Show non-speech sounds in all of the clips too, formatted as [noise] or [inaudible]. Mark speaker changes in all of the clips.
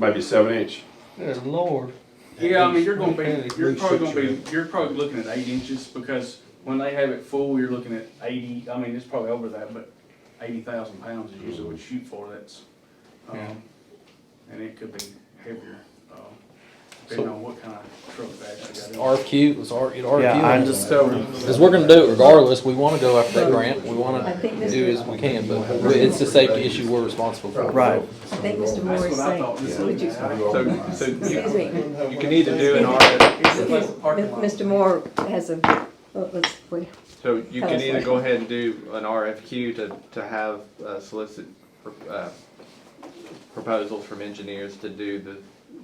Speaker 1: Might be seven inch.
Speaker 2: Good Lord.
Speaker 3: Yeah, I mean, you're gonna
Speaker 2: At least-
Speaker 3: be, you're
Speaker 2: at least
Speaker 3: probably
Speaker 2: six
Speaker 3: gonna be,
Speaker 2: inches.
Speaker 3: you're probably looking at eight inches, because when they have it full, you're looking at eighty, I mean, it's probably over that, but eighty thousand pounds is usually what you shoot for, that's,
Speaker 2: Yeah.
Speaker 3: um, and it could be heavier, uh, depending on what kind of truck they actually got. in.
Speaker 4: RFQ, was R, it RFQ?
Speaker 5: Yeah, I'm just,
Speaker 4: Because we're gonna do it regardless, we wanna go after that grant, we
Speaker 6: I
Speaker 4: wanna
Speaker 6: think
Speaker 4: do
Speaker 6: Mr.,
Speaker 4: as we can, but it's a safety issue we're responsible for.
Speaker 5: right.
Speaker 6: I think Mr. Moore
Speaker 3: That's
Speaker 6: is
Speaker 3: what I
Speaker 6: saying,
Speaker 3: thought, just
Speaker 6: Would
Speaker 3: looking
Speaker 6: you-
Speaker 3: at it.
Speaker 7: So, so
Speaker 6: excuse
Speaker 7: you,
Speaker 6: me, M-
Speaker 7: you can either do an RF,
Speaker 6: Mr. Moore has a, well, let's, we-
Speaker 7: so you can either go ahead and do an RFQ to, to have uh, solicit, uh, proposals from engineers to do the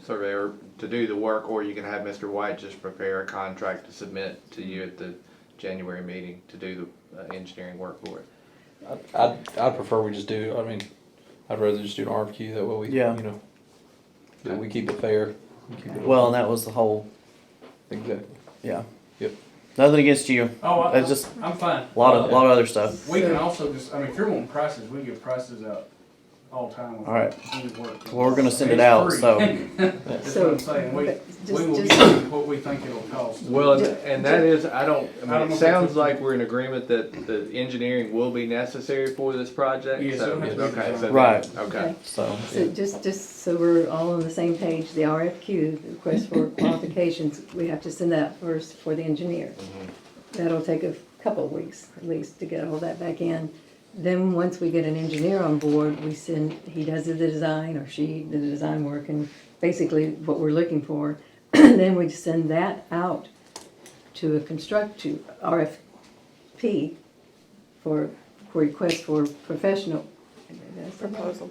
Speaker 7: surveyor, to do the work, or you can have Mr. White just prepare a contract to submit to you at the January meeting to do the uh, engineering work for it.
Speaker 4: I'd, I'd prefer we just do, I mean, I'd rather just do an RFQ, that way we, you
Speaker 5: Yeah.
Speaker 4: know, that we keep it fair. we keep it-
Speaker 5: Well, and that was the whole,
Speaker 4: Exactly.
Speaker 5: yeah.
Speaker 4: Yep.
Speaker 5: Nothing against you.
Speaker 3: Oh, I,
Speaker 5: That's just
Speaker 3: I'm fine.
Speaker 5: a lot of, lot of other stuff.
Speaker 3: We can also just, I mean, if you're wanting prices, we give prices out all the time.
Speaker 5: All right.
Speaker 3: Any work.
Speaker 5: Well, we're gonna send
Speaker 3: It's
Speaker 5: it out,
Speaker 3: free.
Speaker 5: so-
Speaker 3: [laughs] That's what I'm saying, we,
Speaker 6: But
Speaker 3: we
Speaker 6: just-
Speaker 3: will
Speaker 6: just-
Speaker 3: give you what we think it'll cost.
Speaker 7: Well, and,
Speaker 6: Do-
Speaker 7: and that is, I
Speaker 3: I
Speaker 7: don't, I
Speaker 3: don't
Speaker 7: mean,
Speaker 3: know
Speaker 7: it
Speaker 3: if that's
Speaker 7: sounds
Speaker 3: what-
Speaker 7: like we're in agreement that the engineering will be necessary for this project,
Speaker 3: Yes,
Speaker 7: so,
Speaker 3: it'll have to be
Speaker 7: okay, so.
Speaker 3: designed.
Speaker 5: Right.
Speaker 7: Okay.
Speaker 5: So,
Speaker 6: so just, just so we're all on the same page, the RFQ, the request for qualifications, we have to send that first for the engineer. That'll take a couple of weeks at least to get all that back in. Then, once we get an engineer on board, we send, he does the design or she, the design work and basically what we're looking for. [clears throat] Then we send that out to a construct, to RFP for, for request for professional. Proposal.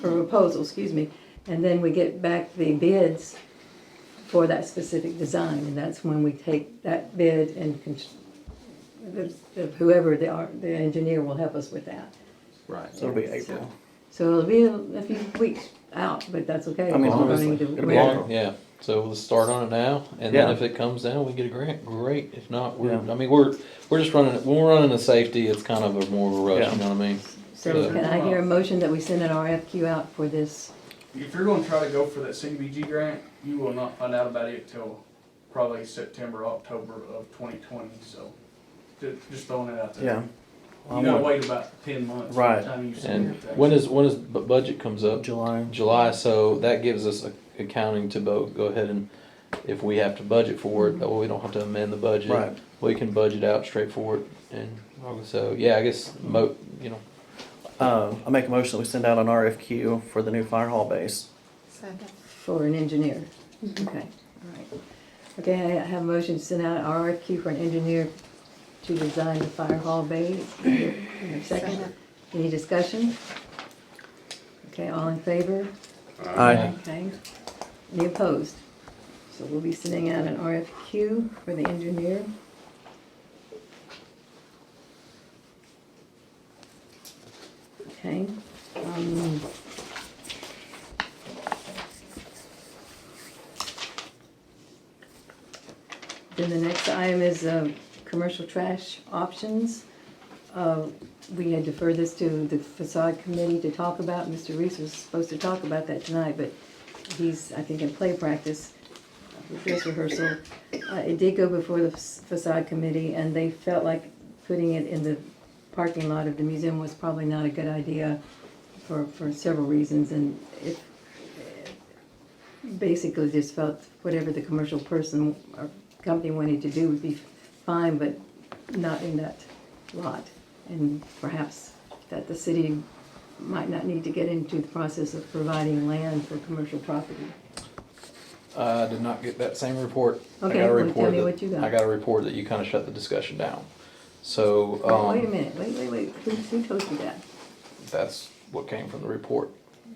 Speaker 6: For proposal, excuse me. And then we get back the bids for that specific design, and that's when we take that bid and cons- the- the- whoever the, ar- the engineer will help us with that.
Speaker 7: Right.
Speaker 5: so it'll be April.
Speaker 6: So it'll be a a few weeks out, but that's okay.
Speaker 5: I mean,
Speaker 6: We're
Speaker 5: honestly,
Speaker 6: running to-
Speaker 5: it'll be
Speaker 6: we're-
Speaker 5: April.
Speaker 4: Yeah, so we'll start on it now, and then
Speaker 5: Yeah.
Speaker 4: if it comes down, we get a grant, great, if not, we're,
Speaker 5: Yeah.
Speaker 4: I mean, we're, we're just running, when we're running a safety, it's kind of a more of a rush, you
Speaker 5: Yeah.
Speaker 4: know what I mean?
Speaker 6: So can I hear a motion that we send an RFQ out for this?
Speaker 3: If you're gonna try to go for that CDBG grant, you will not find out about it till probably September, October of twenty twenty, so ju- just throwing it out
Speaker 5: Yeah.
Speaker 3: there.
Speaker 5: Well,
Speaker 3: You
Speaker 5: I'm
Speaker 3: gotta
Speaker 5: on
Speaker 3: wait about ten months. by
Speaker 5: Right.
Speaker 3: the time you submit
Speaker 4: And
Speaker 3: that.
Speaker 4: when is, when is, bu- budget comes up?
Speaker 5: July.
Speaker 4: July, so that gives us a- accounting to both, go ahead and, if we have to budget for it, that way we don't have to amend the budget.
Speaker 5: Right.
Speaker 4: We can budget out straight for it, and, so, yeah, I guess, mo, you know,
Speaker 5: Uh, I make a motion that we send out an RFQ for the new fire hall base.
Speaker 8: Second.
Speaker 6: For an engineer? Okay, all right. Okay, I have a motion to send out an RFQ for an engineer to design the fire hall bay. Second,
Speaker 8: Second.
Speaker 6: any discussion? Okay, all in favor?
Speaker 5: Aye.
Speaker 6: Okay, any opposed? So we'll be sending out an RFQ for the engineer. Okay, um. Then the next item is, uh, commercial trash options. Uh, we had deferred this to the facade committee to talk about. Mr. Reese was supposed to talk about that tonight, but he's, I think, in play practice, uh, dress rehearsal. Uh, It did go before the facade committee, and they felt like putting it in the parking lot of the museum was probably not a good idea for, for several reasons, and it basically just felt whatever the commercial person or company wanted to do would be fine, but not in that lot. And perhaps that the city might not need to get into the process of providing land for commercial property.
Speaker 4: I did not get that same report. I
Speaker 6: Okay,
Speaker 4: got a
Speaker 6: well, tell
Speaker 4: report
Speaker 6: me
Speaker 4: that-
Speaker 6: what you got.
Speaker 4: I got a report that you kind of shut the discussion down. So,
Speaker 6: Wait a
Speaker 4: um,
Speaker 6: minute, wait, wait, wait, who, who told you that?
Speaker 4: that's what came from the report.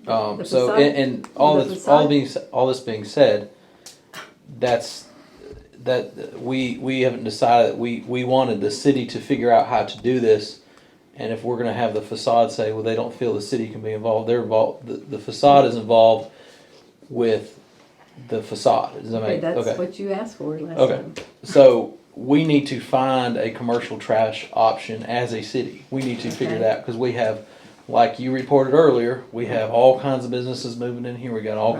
Speaker 4: Um,
Speaker 6: The
Speaker 4: so,
Speaker 6: facade-
Speaker 4: and, and all
Speaker 6: the
Speaker 4: this, all
Speaker 6: facade-
Speaker 4: being, s- all this being said, that's, that, we, we haven't decided, we, we wanted the city to figure out how to do this. And if we're gonna have the facade say, well, they don't feel the city can be involved, they're involved, the, the facade is involved with the facade, does that
Speaker 6: Okay,
Speaker 4: make, okay?
Speaker 6: that's what you asked for last
Speaker 4: Okay.
Speaker 6: time.
Speaker 4: So we need to find a commercial trash option as a city. We need to figure it
Speaker 6: Okay.
Speaker 4: out because we have, like you reported earlier, we have all kinds of businesses moving in here. We got all